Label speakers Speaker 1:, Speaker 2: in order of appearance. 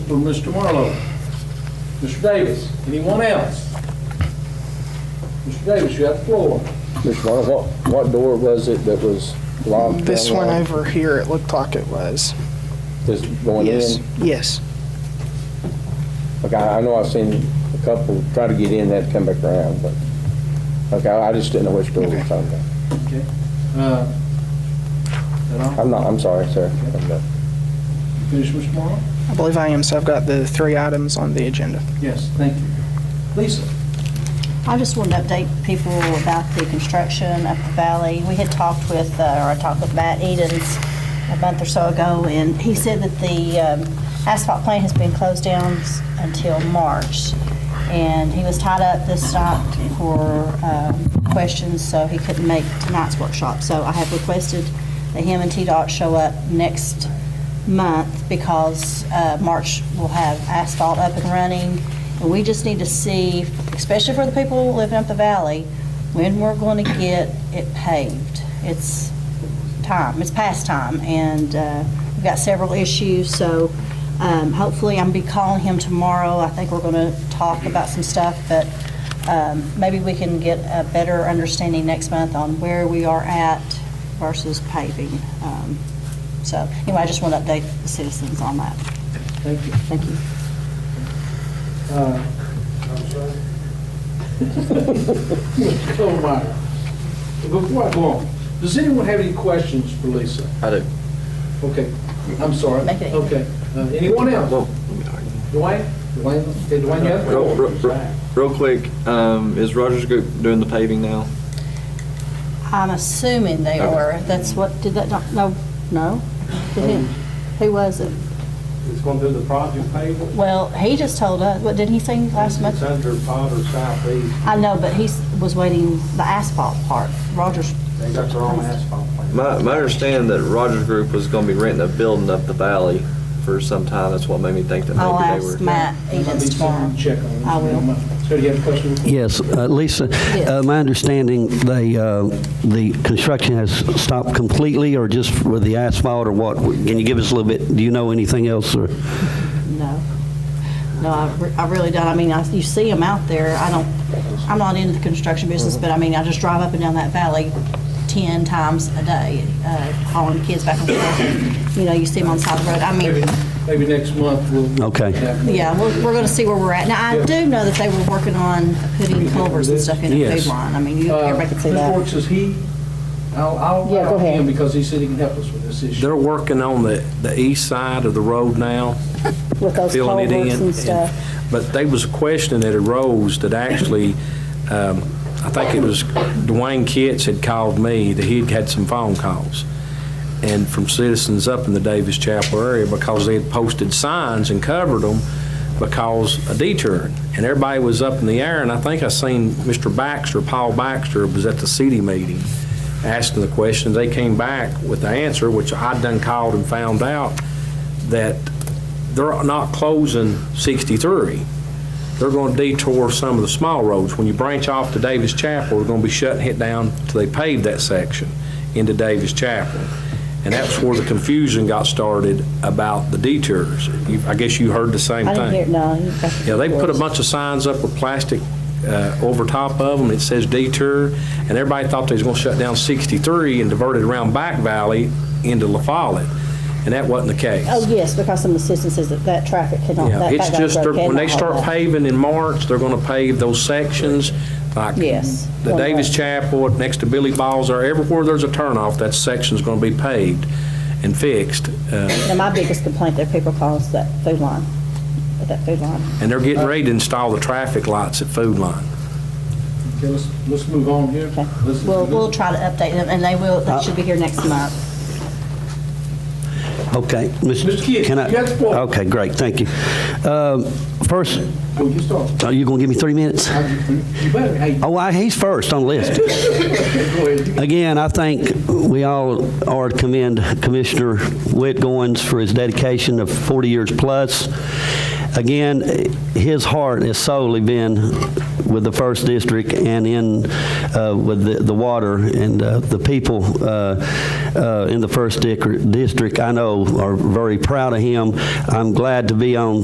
Speaker 1: for Mr. Marlowe. Mr. Davis, anyone else? Mr. Davis, you have the floor.
Speaker 2: Mr. Marlowe, what, what door was it that was locked?
Speaker 3: This one
Speaker 2: unlocked?
Speaker 3: over here, it looked like it was.
Speaker 2: This going
Speaker 3: Yes,
Speaker 2: in?
Speaker 3: yes.
Speaker 2: Okay, I know I've seen a couple try to get in that come back around, but, okay, I just didn't know which door we were talking about.
Speaker 1: Okay. Uh, Is that all?
Speaker 2: I'm not, I'm sorry, sir. I'm done.
Speaker 1: You finished, Mr. Marlowe?
Speaker 3: I believe I am, so I've got the three items on the agenda.
Speaker 1: Yes, thank you. Lisa?
Speaker 4: I just wanted to update people about the construction up the valley. We had talked with, uh, or I talked with Matt Edens a month or so ago, and he said that the um, asphalt plant has been closed down s- until March. And he was tied up this night for um, questions, so he couldn't make tonight's workshop. So I have requested that him and TDOT show up next month because uh, March will have asphalt up and running. And we just need to see, especially for the people living up the valley, when we're going to get it paved. It's time, it's past time, and uh, we've got several issues, so um, hopefully I'm going to be calling him tomorrow. I think we're going to talk about some stuff, but um, maybe we can get a better understanding next month on where we are at versus paving. Um, So, anyway, I just want to update the citizens on that.
Speaker 1: Thank you.
Speaker 4: Thank you.
Speaker 1: Uh, Mr. Colmeyer, Oh, before I go on, does anyone have any questions for Lisa?
Speaker 5: I do.
Speaker 1: Okay, I'm sorry.
Speaker 4: Make it easy.
Speaker 1: Okay, Uh, anyone else?
Speaker 5: Well,
Speaker 1: Dwayne? Dwayne, did Dwayne have?
Speaker 5: real, real, real quick, um, is Rogers Group doing the paving now?
Speaker 4: I'm assuming they
Speaker 5: Okay.
Speaker 4: are. That's what, did that, doc- no, no? Did
Speaker 5: Um,
Speaker 4: he- Who was it?
Speaker 6: It's going to do the project payable.
Speaker 4: Well, he just told us, what, didn't he say last
Speaker 6: It's
Speaker 4: month?
Speaker 6: under Potter Southeast.
Speaker 4: I know, but he s- was waiting the asphalt part. Rogers,
Speaker 6: They got their own asphalt plant.
Speaker 5: My, my understanding that Rogers Group was gonna be renting a building up the valley for some time, that's what made me think that
Speaker 4: I'll
Speaker 5: maybe
Speaker 4: ask
Speaker 5: they were.
Speaker 4: Matt Edens tomorrow.
Speaker 1: Check on it.
Speaker 4: I will.
Speaker 1: So do you have a question?
Speaker 7: Yes, uh, Lisa,
Speaker 4: Yes.
Speaker 7: uh, my understanding, they, uh, the construction has stopped completely, or just with the asphalt, or what? Can you give us a little bit, do you know anything else, or?
Speaker 4: No. No, I re- I really don't. I mean, I- you see them out there. I don't, I'm not into the construction business, but I mean, I just drive up and down that valley 10 times a day, uh, hauling kids back and forth. You know, you see them on the side of the road. I
Speaker 1: Maybe,
Speaker 4: mean,
Speaker 1: maybe next month we'll.
Speaker 7: Okay.
Speaker 4: yeah, we're, we're going to see where we're at. Now, I do know that they were working on putting culverts and stuff in the
Speaker 7: Yes.
Speaker 4: food line. I mean, you- everybody can see
Speaker 1: Mr.
Speaker 4: that.
Speaker 1: Works, Uh, is he, I'll, I'll
Speaker 4: Yeah, go
Speaker 1: allow him
Speaker 4: ahead.
Speaker 1: because he said he can help us with this issue.
Speaker 8: They're working on the, the east side of the road now,
Speaker 4: With those
Speaker 8: filling it in. But they was a question that arose that actually, um, I think it was Dwayne Kitts had called me, that he'd had some phone calls, and from citizens up in the Davis Chapel area, because they had posted signs and covered them because a detour. And everybody was up in the air, and I think I seen Mr. Baxter, Paul Baxter, was at the city meeting, asking the question. They came back with the answer, which I done called and found out, that they're not closing 63. They're going to detour some of the small roads. When you branch off to Davis Chapel, they're going to be shutting it down till they pave that section into Davis Chapel. And that's where the confusion got started about the detours. You- I guess you heard the same
Speaker 4: I
Speaker 8: thing.
Speaker 4: didn't hear, no. you- that's-
Speaker 8: Yeah, they put a bunch of signs up with plastic uh, over top of them, it says detour, and everybody thought they was going to shut down 63 and divert it around Back Valley into La Follette, and that wasn't the case.
Speaker 4: Oh, yes, because some of the citizens says that that traffic cannot,
Speaker 8: Yeah,
Speaker 4: that
Speaker 8: it's
Speaker 4: background
Speaker 8: just,
Speaker 4: road
Speaker 8: they're- when they
Speaker 4: cannot hold
Speaker 8: start
Speaker 4: that.
Speaker 8: paving in March, they're gonna pave those sections, like
Speaker 4: Yes.
Speaker 8: the Davis Chapel, next to Billy Balls, or everywhere there's a turnoff, that section's gonna be paved and fixed. Uh,
Speaker 4: Now, my biggest complaint that people call is that food line, at that food line.
Speaker 8: And they're getting ready to install the traffic lights at Food Line.
Speaker 1: Okay, let's, let's move on here.
Speaker 4: Okay.
Speaker 1: Let's-
Speaker 4: We'll, we'll try to update them, and they will, they should be here next month.
Speaker 7: Okay.
Speaker 1: Mr. Kidd,
Speaker 7: can I-
Speaker 1: you got the floor.
Speaker 7: Okay, great, thank you. Um, First,
Speaker 1: Oh, you start.
Speaker 7: are you going to give me three minutes?
Speaker 1: You better, hey, go
Speaker 7: Oh, I- he's first on the list.
Speaker 1: ahead. You
Speaker 7: Again, I think we all are to commend Commissioner Whit Goins for his dedication of 40 years plus. Again, his heart has solely been with the First District and in, uh, with the- the water and uh, the people uh, uh, in the First Dic- District, I know, are very proud of him. I'm glad to be on